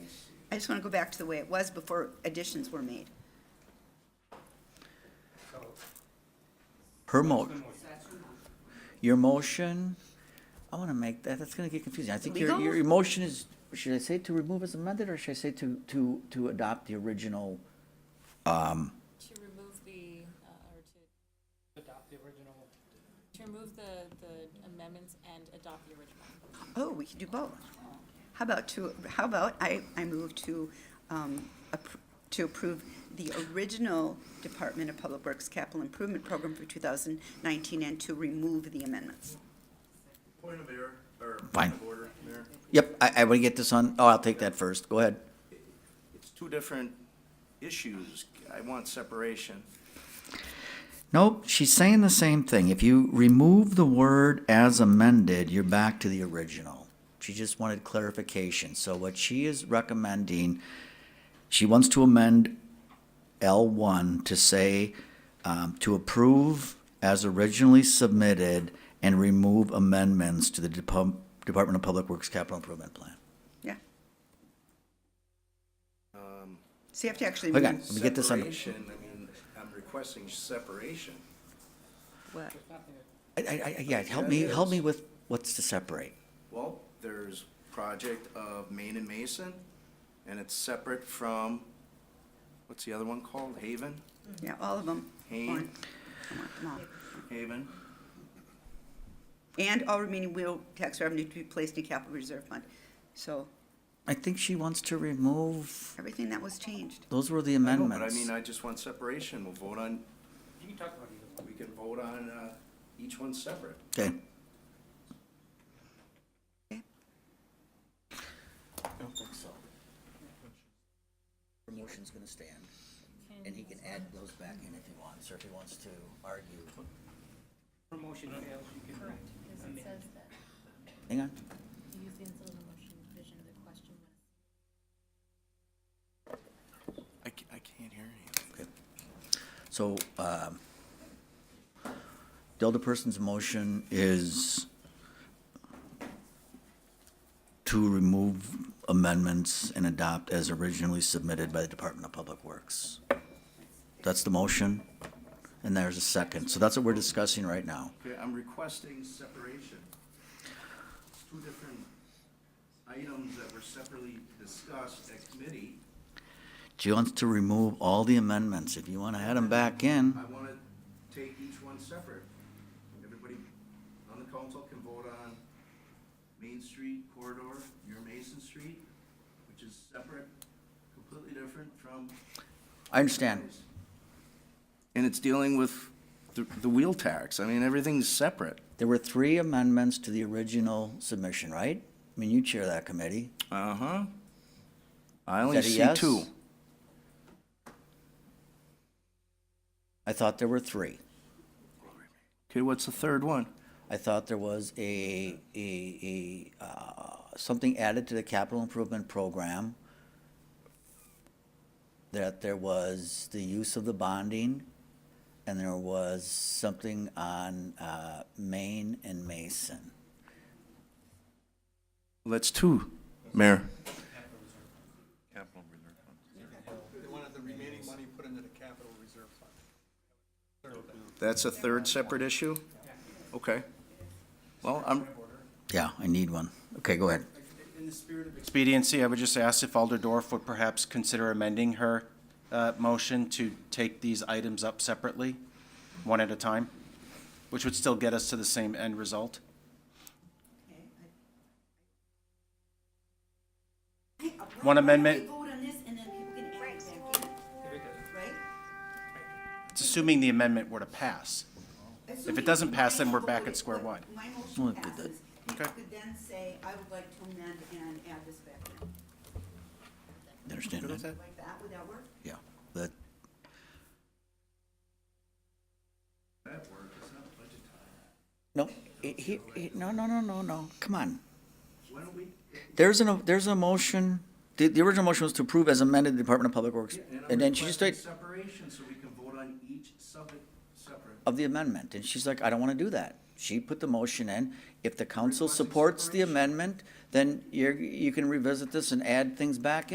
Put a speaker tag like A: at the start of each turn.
A: I just want to go back to the way it was before additions were made.
B: Her mo, your motion, I want to make that, that's going to get confusing. I think your,
A: Legal?
B: your your motion is, should I say to remove as amended, or should I say to, to, to adopt the original?
C: To remove the, uh, or to,
D: adopt the original.
C: to remove the, the amendments and adopt the original.
A: Oh, we can do both. How about to, how about I, I move to, um, appr- to approve the original Department of Public Works Capital Improvement Program for 2019 and to remove the amendments.
E: Point of error, or
B: Fine.
E: point of order, Mayor.
B: Yep, I, I want to get this on, oh, I'll take that first, go ahead.
E: It's two different issues. I want separation.
B: Nope, she's saying the same thing. If you remove the word as amended, you're back to the original. She just wanted clarification. So what she is recommending, she wants to amend L1 to say, um, to approve as originally submitted and remove amendments to the Depu- Department of Public Works Capital Improvement Plan.
A: Yeah. So you have to actually.
B: Hang on,
A: remove
B: let me get this under.
E: Separation, I mean, I'm requesting separation.
A: what?
B: I, I, I- yeah, help me, help me with what's to separate.
E: Well, there's project of Main and Mason, and it's separate from, what's the other one called? Haven?
A: Yeah, all of them.
E: Hayne.
A: Come on, come on.
E: Haven?
A: And all remaining will tax revenue to be placed in capital reserve fund. So
B: I think she wants to remove
A: everything that was changed.
B: Those were the
E: I know, But I
B: amendments.
E: mean, I just want separation. We'll vote on,
D: You can talk about either one.
E: we can vote on, uh, each one separate.
B: Okay,
E: I don't think so.
B: her motion's gonna stand, and he can add those back in if he wants, or if he wants to argue.
D: Her motion fails, you can.
C: Because it says that
B: Hang on,
C: you use the incidental motion provision of the question when
E: I, ca- I can't hear you.
B: okay. So, um, the other person's motion is to remove amendments and adopt as originally submitted by the Department of Public Works. That's the motion, and there's a second, so that's what we're discussing right now.
E: Okay, I'm requesting separation. It's Two different items that were separately discussed at committee.
B: She wants to remove all the amendments. If you want to add them back in,
E: I want to take each one separate. Everybody on the council can vote on Main Street corridor, your Mason Street, which is separate, completely different from.
B: I understand.
E: And it's dealing with the, the wheel tax. I mean, everything's separate.
B: There were three amendments to the original submission, right? I mean, you chair that committee.
E: Uh-huh. I
B: Is
E: only
B: that a
E: see
B: yes?
E: two.
B: I thought there were three.
E: Okay, what's the third one?
B: I thought there was a, a, a, uh, something added to the capital improvement program. That there was the use of the bonding, and there was something on, uh, Maine and Mason.
E: Well, That's two, Mayor.
F: They wanted the remaining money put into the capital reserve fund.
E: That's a third separate issue? Okay. Well, I'm,
B: Yeah, I need one. Okay, go ahead.
G: In the spirit of expediency, I would just ask if Alder Dorf would perhaps consider amending her uh, motion to take these items up separately, one at a time, which would still get us to the same end result. One amendment.
A: Vote on this and then people can add it back in, right?
G: It's assuming the amendment were to pass. If it doesn't pass, then we're back at square one.
A: My
B: Well,
A: motion
B: it did that.
A: passes. You
G: Okay.
A: could then say, I would like to amend and add this back in.
B: Understand that?
A: Like that, would that work?
B: Yeah, that,
E: That work is not budget time.
B: no, it- he, he, no, no, no, no, no, come on.
E: Why don't we,
B: There's an, there's a motion, the, the original motion was to approve as amended the Department of Public Works, and
E: and I'm
B: then she just
E: requesting
B: said,
E: separation so we can vote on each sub, separate.
B: of the amendment, and she's like, I don't wanna do that. She put the motion in, if the council supports the amendment, then you're, you can revisit this and add things back